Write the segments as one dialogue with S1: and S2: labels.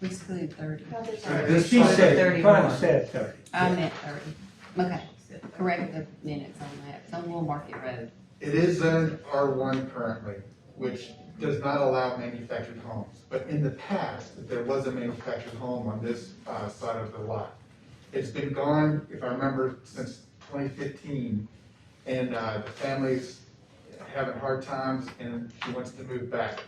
S1: Basically thirty.
S2: Because she said, Connie said thirty.
S1: I meant thirty. Okay, correct the minutes on that. It's on Little Market Road.
S3: It is zoned R one currently, which does not allow manufactured homes. But in the past, there was a manufactured home on this, uh, side of the lot. It's been gone, if I remember, since twenty fifteen. And, uh, the family's having hard times and she wants to move back.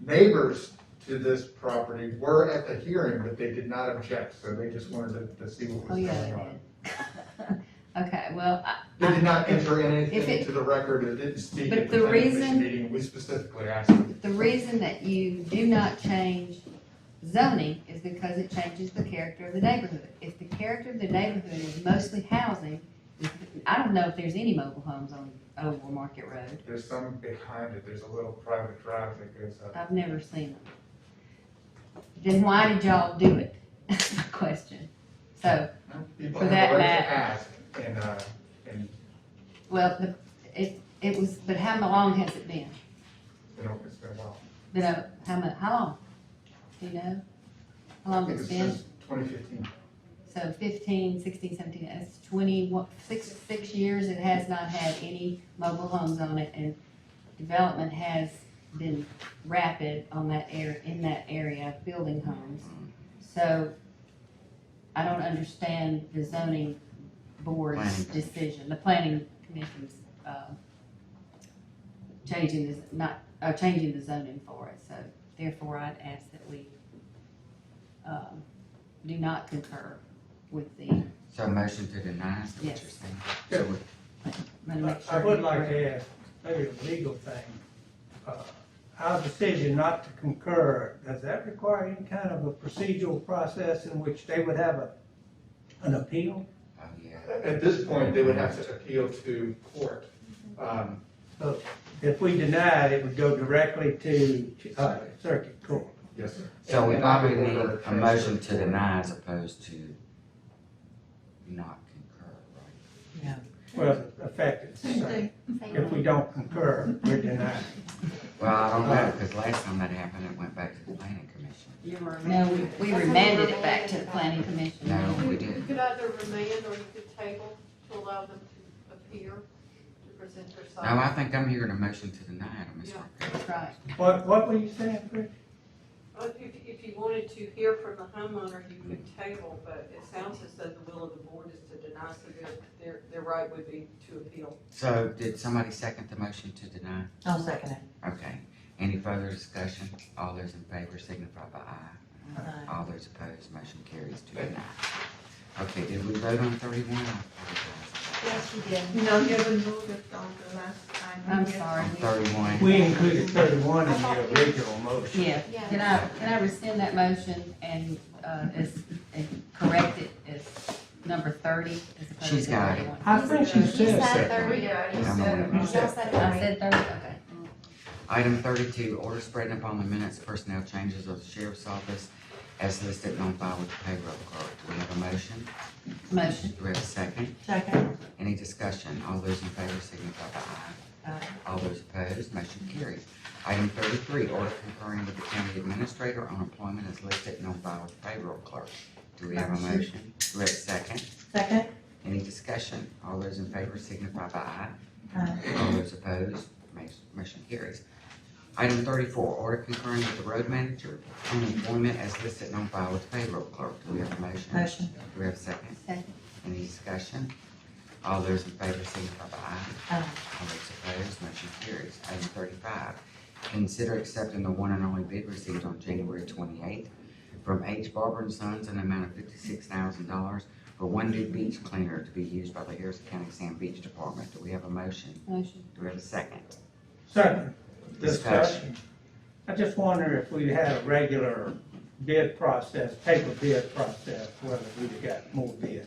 S3: Neighbors to this property were at the hearing, but they did not object, so they just wanted to, to see what
S1: Oh,
S3: was
S1: yeah,
S3: going
S1: they
S3: on.
S1: did. Okay, well, I-
S3: They did not enter
S1: If
S3: anything
S1: it-
S3: into the record, it didn't speak
S1: But
S3: at the
S1: the
S3: planning commission
S1: reason-
S3: meeting, we specifically asked them.
S1: the reason that you do not change zoning is because it changes the character of the neighborhood. If the character of the neighborhood is mostly housing, I don't know if there's any mobile homes on Old Little Market Road.
S3: There's some behind it, there's a little private drive that goes up.
S1: I've never seen them. Then why did y'all do it? That's my question. So,
S3: People
S1: For
S3: have
S1: that
S3: the right
S1: matter.
S3: to ask, and, uh, and,
S1: well, the, it, it was, but how long has it been?
S3: you know, it's been a while.
S1: Been a, how mu, how long? Do you know? How long it's been?
S3: Twenty fifteen.
S1: So fifteen, sixteen, seventeen, that's twenty, what, six, six years it has not had any mobile homes on it and development has been rapid on that air, in that area, building homes. So I don't understand the zoning board's
S4: Planning.
S1: decision, the planning commission's, uh, changing this, not, uh, changing the zoning for it, so therefore I'd ask that we, um, do not concur with the, I'm
S4: So motion to deny is what you're
S1: Yes.
S4: saying? So we-
S1: gonna make
S2: I
S1: sure.
S2: would like to ask, maybe a legal thing, uh, our decision not to concur, does that require any kind of a procedural process in which they would have a, an appeal?
S4: Oh, yeah.
S3: At this point, they would have to appeal to court. Um,
S2: So If we denied, it would go directly to, uh, circuit court.
S3: yes, sir.
S4: So we
S3: And I would
S4: probably need
S3: order
S4: a motion to
S3: transfer.
S4: deny as opposed to not concur, right?
S2: Well, affected, so if we don't concur, we're denied.
S4: Well, I don't know, because last time that happened, it went back to the planning commission.
S1: No, we- we remanded it back to the planning commission.
S4: No, we
S5: You
S4: didn't.
S5: could either remand or you could table to allow them to appear, to present their
S4: No,
S5: side.
S4: I think I'm hearing a motion to deny it, Ms.
S5: Yeah.
S4: Marquez.
S1: That's right.
S2: What, what were you saying, Chris?
S5: Well, If, you- if you wanted to hear from the homeowner, you could table, but it sounds as though the will of the board is to deny, so their, their, their right would be to appeal.
S4: So did somebody second the motion to deny?
S6: I'll second
S4: Okay. Any further discussion? All those in favor signify by aye.
S6: it.
S4: All those opposed, motion carries to deny. Okay, did we vote on thirty-one? I apologize.
S7: Yes, you did. No, you haven't moved it on the last time.
S1: I'm sorry.
S4: On thirty-one?
S2: We included thirty-one in the original motion.
S1: Yeah,
S7: Yeah.
S1: can I, can I rescind that motion and, uh, as, and correct it as number thirty as opposed to
S4: She's got it.
S1: thirty-one?
S2: I think she
S7: He
S2: said
S7: said
S2: second.
S7: thirty,
S5: Yeah,
S4: you said-
S7: you said thirty.
S1: I said thirty, okay.
S4: Item thirty-two, order spreading upon the minutes personnel changes of the sheriff's office as listed and on file with the payroll clerk. Do we have a motion?
S1: Motion,
S4: Do we have a second?
S6: Second.
S4: Any discussion? All those in favor signify by aye.
S1: Aye.
S4: All those opposed, motion carries. Item thirty-three, order concurring with the county administrator on employment as listed and on file with the payroll clerk. Do we have a
S7: Motion.
S4: motion? Do we have a second?
S6: Second.
S4: Any discussion? All those in favor signify by aye.
S6: Aye.
S4: All those opposed, ma- motion carries. Item thirty-four, order concurring with the road manager on employment as listed and on file with the payroll clerk. Do we have a motion?
S6: Motion.
S4: Do we have a second?
S1: Second.
S4: Any discussion? All those in favor signify by aye.
S6: Aye.
S4: All those opposed, motion carries. Item thirty-five, consider accepting the one and only bid received on January twenty-eighth from H. Barber and Sons in the amount of fifty-six thousand dollars for one new beach cleaner to be used by the Harrison County Sand Beach Department. Do we have a motion?
S1: motion.
S4: Do we have a second?
S2: Second
S4: Discussion.
S2: discussion. I just wonder if we had a regular bid process, paper bid process, whether we'd have got more bids.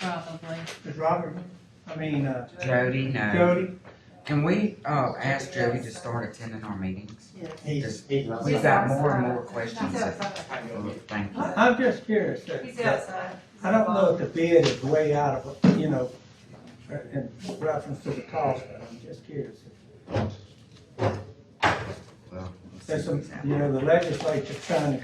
S1: Probably.
S2: Does Robert, I mean, uh,
S4: Jody, no.
S2: Jody?
S4: Can we, uh, ask Jody to start attending our meetings?
S2: He's-
S4: We've got more and more questions. that- Thank you.
S2: I- I'm just curious. that-
S7: He's outside.
S2: I don't know if the bid is way out of, you know, uh, in reference to the cost, but I'm just curious.
S4: Well, let's see
S2: There's some,
S4: what's out
S2: you
S4: there.
S2: know, the legislature's trying to